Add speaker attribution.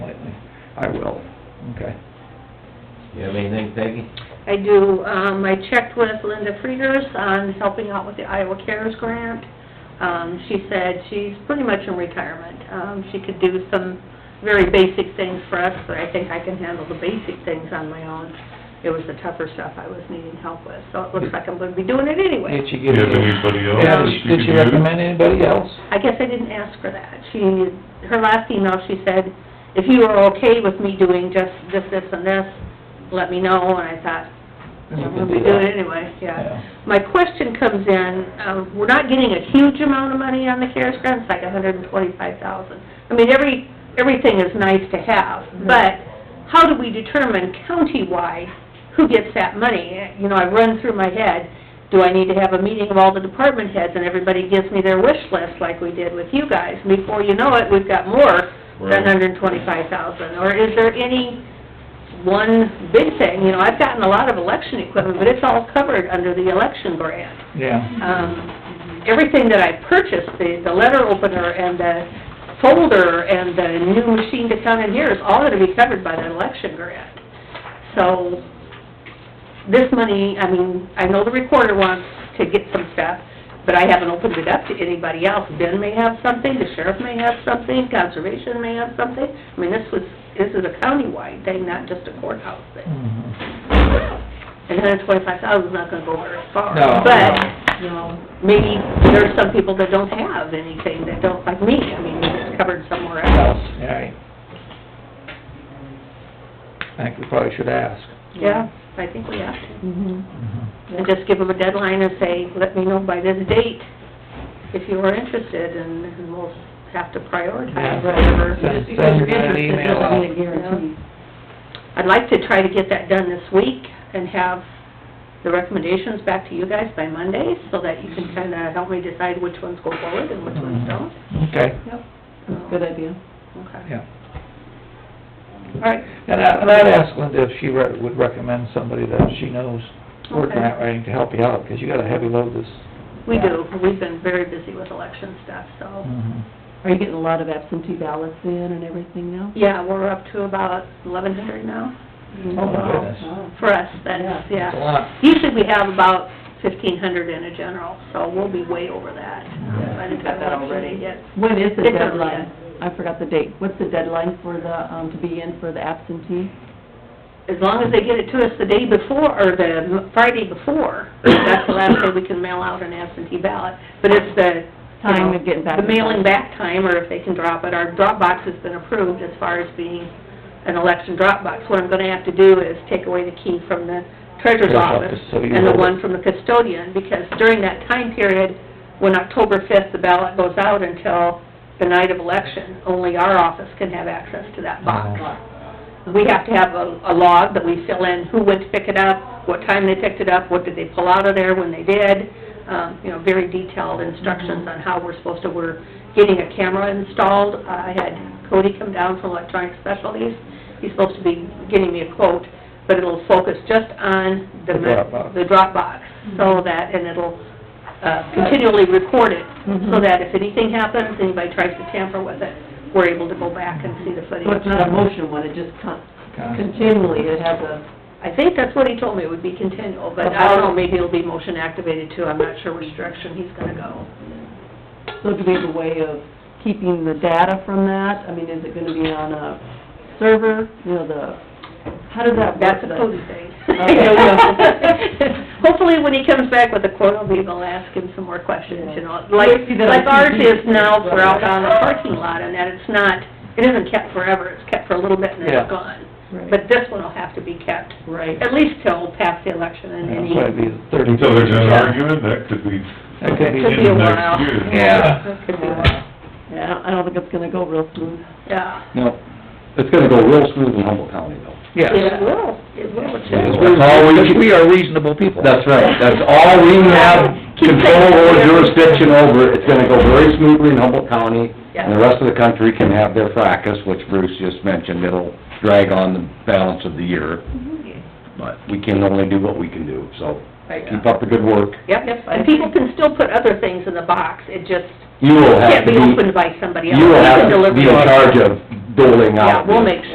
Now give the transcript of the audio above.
Speaker 1: I will, okay.
Speaker 2: You have anything, Peggy?
Speaker 3: I do, um, I checked with Linda Frieders on helping out with the Iowa Cares Grant. Um, she said she's pretty much in retirement. Um, she could do some very basic things for us, but I think I can handle the basic things on my own. It was the tougher stuff I was needing help with, so it looks like I'm gonna be doing it anyway.
Speaker 1: Did she give
Speaker 4: Do you
Speaker 1: you?
Speaker 4: have anybody else
Speaker 1: Yeah,
Speaker 4: that
Speaker 1: did she-
Speaker 4: you
Speaker 1: did
Speaker 4: could
Speaker 1: she
Speaker 4: use?
Speaker 1: recommend anybody else?
Speaker 3: I guess I didn't ask her that. She, her last email, she said, if you are okay with me doing just this, this, and this, let me know, and I thought, I'm gonna be doing it anyway, yeah. My question comes in, um, we're not getting a huge amount of money on the CARES grant, it's like a hundred and twenty-five thousand. I mean, every, everything is nice to have, but how do we determine countywide who gets that money? You know, I run through my head, do I need to have a meeting of all the department heads and everybody gives me their wish list like we did with you guys? Before you know it, we've got more than
Speaker 2: Right.
Speaker 3: hundred and twenty-five thousand, or is there any one big thing, you know, I've gotten a lot of election equipment, but it's all covered under the election grant.
Speaker 1: Yeah,
Speaker 3: Um, everything that I purchased, the, the letter opener and the folder and the new machine to come in here is all gonna be covered by that election grant. So, this money, I mean, I know the recorder wants to get some stuff, but I haven't opened it up to anybody else. Ben may have something, the sheriff may have something, conservation may have something. I mean, this was, this is a countywide thing, not just a courthouse thing.
Speaker 1: Mhm.
Speaker 3: And hundred and twenty-five thousand's not gonna go very far.
Speaker 1: No,
Speaker 3: But,
Speaker 1: no.
Speaker 3: you know, maybe there are some people that don't have anything, that don't, like me, I mean, it's covered somewhere else.
Speaker 1: All right. I think we probably should ask.
Speaker 3: Yeah, I think we have to.
Speaker 1: Mhm.
Speaker 3: And just give them a deadline and say, let me know by this date if you are interested, and and we'll have to prioritize whatever.
Speaker 1: Send- Send that email out.
Speaker 3: guarantee. I'd like to try to get that done this week and have the recommendations back to you guys by Monday, so that you can kinda help me decide which ones go forward and which
Speaker 1: Mm-hmm.
Speaker 3: ones don't.
Speaker 1: Okay,
Speaker 5: Good idea.
Speaker 3: Okay.
Speaker 1: yeah. All right, and I, and I'd ask Linda if she re- would recommend somebody that she knows working
Speaker 3: Okay.
Speaker 1: that writing to help you out, because you got a heavy load this.
Speaker 3: We do, we've been very busy with election stuff, so.
Speaker 1: Mhm.
Speaker 5: Are you getting a lot of absentee ballots in and everything now?
Speaker 3: Yeah, we're up to about eleven hundred now.
Speaker 1: Oh, my goodness.
Speaker 5: Wow.
Speaker 3: For us, that is,
Speaker 1: That's a
Speaker 3: yeah.
Speaker 1: lot.
Speaker 3: Usually we have about fifteen hundred in a general, so we'll be way over that. by the
Speaker 5: You've got that
Speaker 3: time election
Speaker 5: already.
Speaker 3: hits.
Speaker 5: When is the
Speaker 3: It's early.
Speaker 5: deadline? I forgot the date. What's the deadline for the, um, to be in for the absentee?
Speaker 3: As long as they get it to us the day before, or the Friday before, that's the last day we can mail out an absentee ballot. But it's the, you
Speaker 5: Time
Speaker 3: know,
Speaker 5: of getting back.
Speaker 3: the mailing back time, or if they can drop it. Our drop box has been approved as far as being an election drop box. What I'm gonna have to do is take away the key from the treasurer's
Speaker 1: Treasurer's
Speaker 3: office
Speaker 1: office, so you
Speaker 3: and the
Speaker 1: hold it.
Speaker 3: one from the custodian, because during that time period, when October fifth, the ballot goes out until the night of election, only our office can have access to that box. We have to have a, a log that we fill in, who went to pick it up, what time they picked it up, what did they pull out of there when they did, um, you know, very detailed instructions on how we're supposed to, we're getting a camera installed. I had Cody come down from Electronic Specialties, he's supposed to be getting me a quote, but it'll focus just on the,
Speaker 1: The
Speaker 3: ma-
Speaker 1: Dropbox.
Speaker 3: the Dropbox, so that, and it'll, uh, continually record it, so
Speaker 5: Mhm.
Speaker 3: that if anything happens, anybody tries to tamper with it, we're able to go back and see the footage.
Speaker 5: So it's not a motion one, it just con- continually, it has a,
Speaker 3: I think that's what he told me, it would be continual, but I don't know, maybe it'll be motion activated too, I'm not sure which direction he's gonna go.
Speaker 5: so do we have a way of keeping the data from that? I mean, is it gonna be on a server, you know, the, how does that work?
Speaker 3: That's a
Speaker 5: the-
Speaker 3: Cody thing.
Speaker 5: Okay.
Speaker 3: Hopefully, when he comes back with a quote, I'll be able to ask him some more questions, you know, like,
Speaker 5: Maybe that'll
Speaker 3: like ours
Speaker 5: be-
Speaker 3: is now for out on the parking lot, and that it's not, it isn't kept forever, it's kept for a little bit and then
Speaker 1: Yeah.
Speaker 3: it's gone.
Speaker 5: Right.
Speaker 3: But this one will have to be kept,
Speaker 5: Right.
Speaker 3: at least till past the election and
Speaker 1: Yeah,
Speaker 3: any,
Speaker 1: so it'd be thirty.
Speaker 4: Until there's an
Speaker 3: Yeah.
Speaker 4: argument, that could be
Speaker 1: That could be-
Speaker 3: could be a
Speaker 4: in the
Speaker 3: while.
Speaker 4: next year.
Speaker 1: Yeah.
Speaker 3: It could be a while,
Speaker 5: Yeah, I don't think it's gonna go real smooth.
Speaker 3: yeah.
Speaker 6: No, it's gonna go real smooth in Humboldt County though.
Speaker 1: Yes.
Speaker 3: It will, it will, it
Speaker 6: Because
Speaker 3: should.
Speaker 6: we're
Speaker 1: Because
Speaker 6: always-
Speaker 1: we are reasonable people.
Speaker 6: That's right, that's all we have control or jurisdiction over, it's gonna go very smoothly in Humboldt County, and the rest of the country can have their fracas, which Bruce just mentioned, it'll drag on the balance of the year,
Speaker 3: Mm-hmm.
Speaker 6: but we can only do what we can do, so keep up the good work.
Speaker 3: Yep, and people can still put other things in the box, it just
Speaker 6: You will have
Speaker 3: can't
Speaker 6: to
Speaker 3: be
Speaker 6: be,
Speaker 3: opened by somebody else.
Speaker 6: you will
Speaker 3: We can
Speaker 6: have to
Speaker 3: deliver
Speaker 6: be in
Speaker 3: it.
Speaker 6: charge of doling
Speaker 3: Yeah,
Speaker 6: out.
Speaker 3: we'll
Speaker 6: the-
Speaker 3: make